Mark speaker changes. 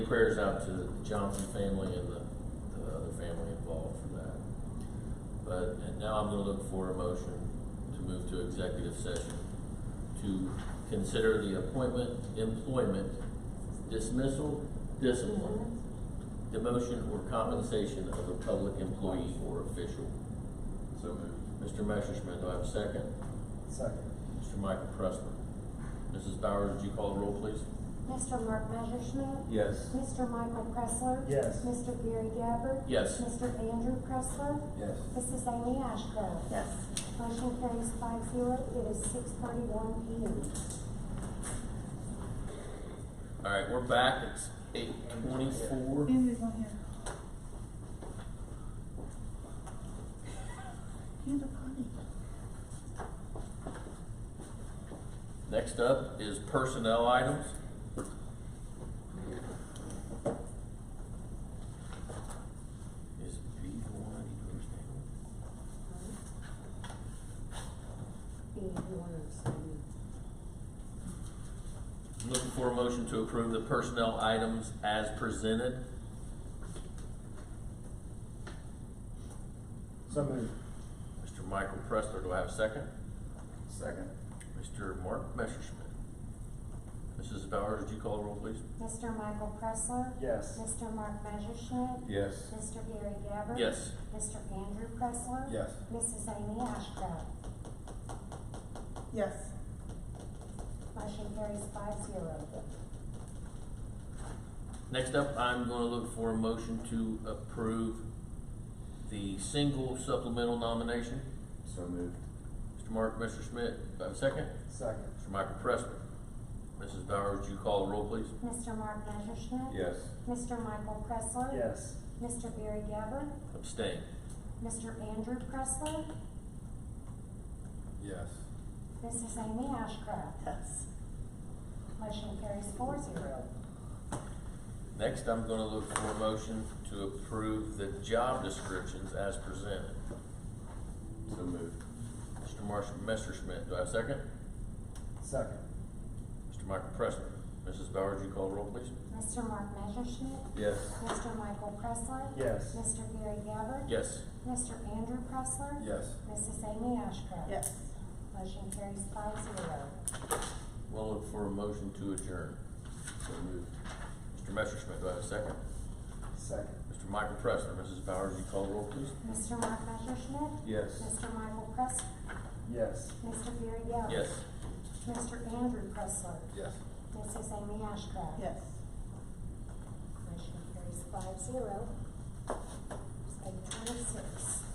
Speaker 1: Prayers out to the Johnson family and the, the other family involved for that. But, and now I'm gonna look for a motion to move to executive session to consider the appointment, employment, dismissal, discipline, demotion or compensation of a public employee or official.
Speaker 2: So moved.
Speaker 1: Mr. Messerschmidt, do I have a second?
Speaker 3: Second.
Speaker 1: Mr. Michael Pressler. Mrs. Bowers, would you call the roll, please?
Speaker 4: Mr. Mark Messerschmidt.
Speaker 2: Yes.
Speaker 4: Mr. Michael Pressler.
Speaker 3: Yes.
Speaker 4: Mr. Gary Gabbard.
Speaker 1: Yes.
Speaker 4: Mr. Andrew Pressler.
Speaker 2: Yes.
Speaker 4: Mrs. Amy Ashcraft.
Speaker 5: Yes.
Speaker 4: Motion carries five zero. It is six thirty-one P M.
Speaker 1: All right, we're back. It's eight twenty-four.
Speaker 5: Andy's on here. Hand up, honey.
Speaker 1: Next up is personnel items. Is B the one I need to abstain
Speaker 4: Being one
Speaker 1: on? Looking for a motion to approve the personnel items as presented.
Speaker 3: So moved.
Speaker 1: Mr. Michael Pressler, do I have a second?
Speaker 2: Second.
Speaker 1: Mr. Mark Messerschmidt. Mrs. Bowers, would you call the roll, please?
Speaker 4: Mr. Michael Pressler.
Speaker 3: Yes.
Speaker 4: Mr. Mark Messerschmidt.
Speaker 2: Yes.
Speaker 4: Mr. Gary Gabbard.
Speaker 1: Yes.
Speaker 4: Mr. Andrew Pressler.
Speaker 2: Yes.
Speaker 4: Mrs. Amy Ashcraft.
Speaker 5: Yes.
Speaker 4: Motion carries five zero.
Speaker 1: Next up, I'm gonna look for a motion to approve the single supplemental nomination.
Speaker 2: So moved.
Speaker 1: Mr. Mark Messerschmidt, do I have a second?
Speaker 3: Second.
Speaker 1: Mr. Michael Pressler. Mrs. Bowers, would you call the roll, please?
Speaker 4: Mr. Mark Messerschmidt.
Speaker 2: Yes.
Speaker 4: Mr. Michael Pressler.
Speaker 3: Yes.
Speaker 4: Mr. Barry Gabbard.
Speaker 1: Abstain.
Speaker 4: Mr. Andrew Pressler.
Speaker 2: Yes.
Speaker 4: Mrs. Amy Ashcraft.
Speaker 5: Yes.
Speaker 4: Motion carries four zero.
Speaker 1: Next, I'm gonna look for a motion to approve the job descriptions as presented.
Speaker 2: So moved.
Speaker 1: Mr. Marshall Messerschmidt, do I have a second?
Speaker 3: Second.
Speaker 1: Mr. Michael Pressler. Mrs. Bowers, would you call the roll, please?
Speaker 4: Mr. Mark Messerschmidt.
Speaker 2: Yes.
Speaker 4: Mr. Michael Pressler.
Speaker 3: Yes.
Speaker 4: Mr. Gary Gabbard.
Speaker 1: Yes.
Speaker 4: Mr. Andrew Pressler.
Speaker 2: Yes.
Speaker 4: Mrs. Amy Ashcraft.
Speaker 5: Yes.
Speaker 4: Motion carries five zero.
Speaker 1: We'll look for a motion to adjourn.
Speaker 2: So moved.
Speaker 1: Mr. Messerschmidt, do I have a second?
Speaker 3: Second.
Speaker 1: Mr. Michael Pressler. Mrs. Bowers, would you call the roll, please?
Speaker 4: Mr. Mark Messerschmidt.
Speaker 2: Yes.
Speaker 4: Mr. Michael Pressler.
Speaker 3: Yes.
Speaker 4: Mr. Gary Gabbard.
Speaker 1: Yes.
Speaker 4: Mr. Andrew Pressler.
Speaker 2: Yes.
Speaker 4: Mrs. Amy Ashcraft.
Speaker 5: Yes.
Speaker 4: Motion carries five zero.